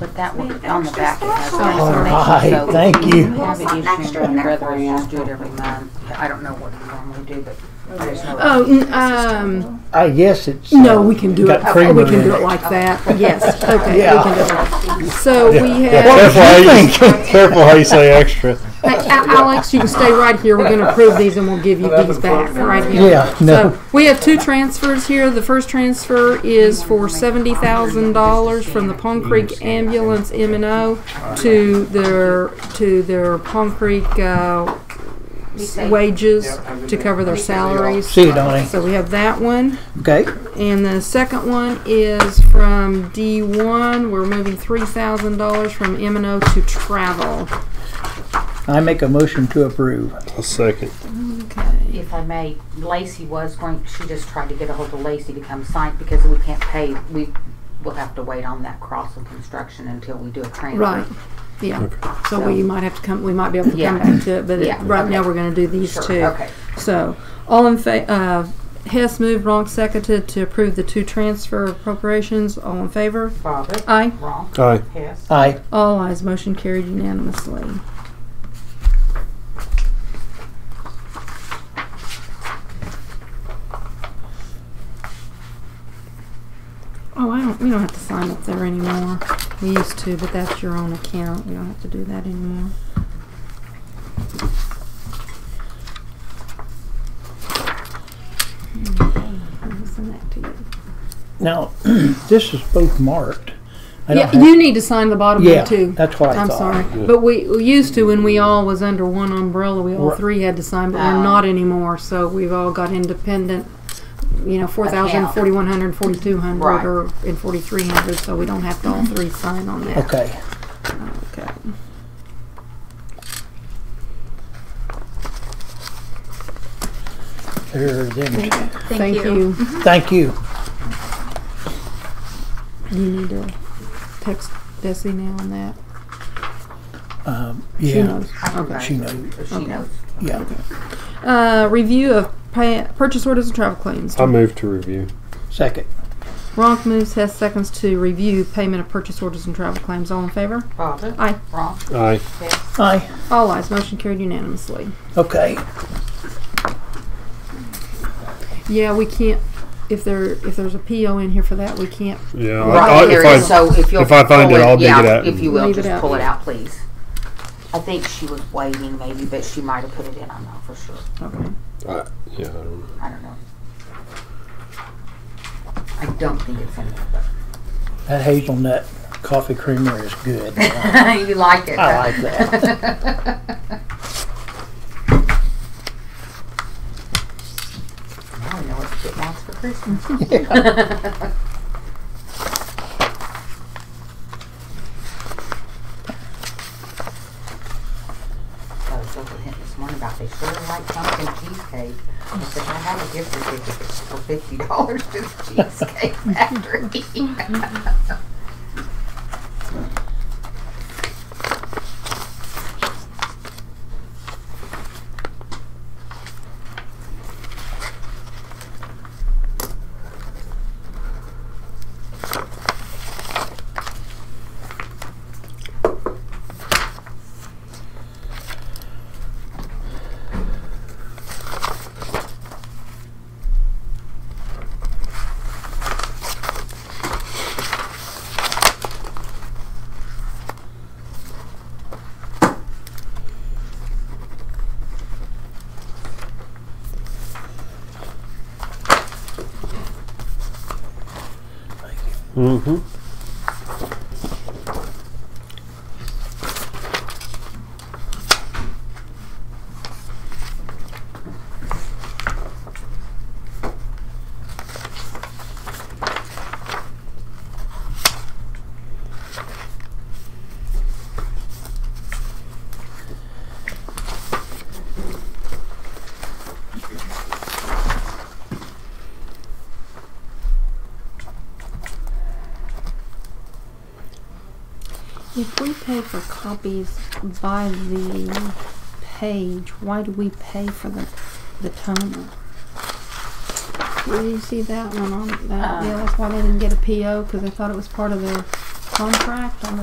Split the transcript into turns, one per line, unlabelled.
But that one on the back, it has the
All
information, so.
right, thank
if
you.
Have an
Something
issue,
extra
and
in there
rather
for
us
you.
just do it every month. I don't know what we normally do, but I just know.
Oh, n- um,
I guess it's.
no,
uh,
we can do it,
got
Oh, we
creamer
can
in
do it like that, yes, okay, we can do it. like that. So we have,
Careful how you,
think?
careful how you say extra.
Hey, A- Alex, you can stay right here, we're gonna approve these and we'll give you these back, right here.
Yeah, no,
So, we have two transfers here. The first transfer is for seventy thousand dollars from the Palm Creek Ambulance M and O to their, to their Palm Creek, uh, s- wages to cover their salaries.
see you, Donnie.
So we have that one.
Okay,
And the second one is from D1. We're moving $3,000 from M&O to travel.
I make a motion to approve.
A second.
If I may, Lacey was going, she just tried to get ahold of Lacey to come sign because we can't pay, we will have to wait on that crossing construction until we do a transfer.
Right. Yeah. So we might have to come, we might be able to come
Yeah.
back to it, but it-
Yeah,
right now
okay.
we're going to do these
Sure,
two.
okay.
So, all in fa, uh, Hess moved, Ronk seconded to approve the two transfer appropriations. All in favor?
Bobbit,
Aye.
wrong,
Aye.
Hess,
Aye.
All ayes. Motion carried unanimously. Oh, I don't, we don't have to sign up there anymore. We used to, but that's your own account. We don't have to do that anymore. Okay, let me Send that to you.
Now, this is both marked. I don't
Yeah,
have-
you need to sign the bottom
Yeah,
one too.
that's what I
I'm
thought.
sorry, but we, we used to when we all was under one umbrella, we all
Right.
three had to sign, but we're
Oh.
not anymore. So we've all got independent, you know, four thousand,
Account.
forty-one hundred, forty-two
Right.
hundred, or and forty-three hundred. So we don't have to all three sign on that.
Okay,
Okay.
there are them.
Thank you.
Thank you.
You need to text Bessie now on that.
Um,
She
yeah,
knows.
okay.
she knows,
She knows.
yeah.
Uh, review of pa purchase orders and travel claims.
Um,
I move to review.
Second,
Ronk moves, Hess seconds to review payment of purchase orders and travel claims. All in favor?
Bobbit.
Aye.
Wrong,
Aye.
Hess,
aye,
All ayes. Motion carried unanimously.
okay.
Yeah, we can't, if there, if there's a PO in here for that, we can't.
Yeah. I- I-
Right,
if
there
I-
is, so if you'll.
if I find
pull
it, I'll dig
yeah,
it out
If
and-
you will,
Leave it out.
just pull it out, please. I think she was waiting maybe, but she might have put it in, I'm not for sure,
Okay.
I- Yeah, I don't know.
I don't know. I don't think it's in there,
That hazelnut coffee creamer is good.
but you like it.
I
huh?
like that.
I don't know what to get Max for Christmas. I was joking with him this morning about they sure like pumpkin cheesecake. I said, I have a gift certificate for fifty dollars to the Cheesecake Factory.
Mm-hmm.
If we pay for copies by the page, why do we pay for the, the toner? Do you see Uh-uh. that one on, that, yeah, that's why they didn't get a PO, cause they thought it was part of the contract on the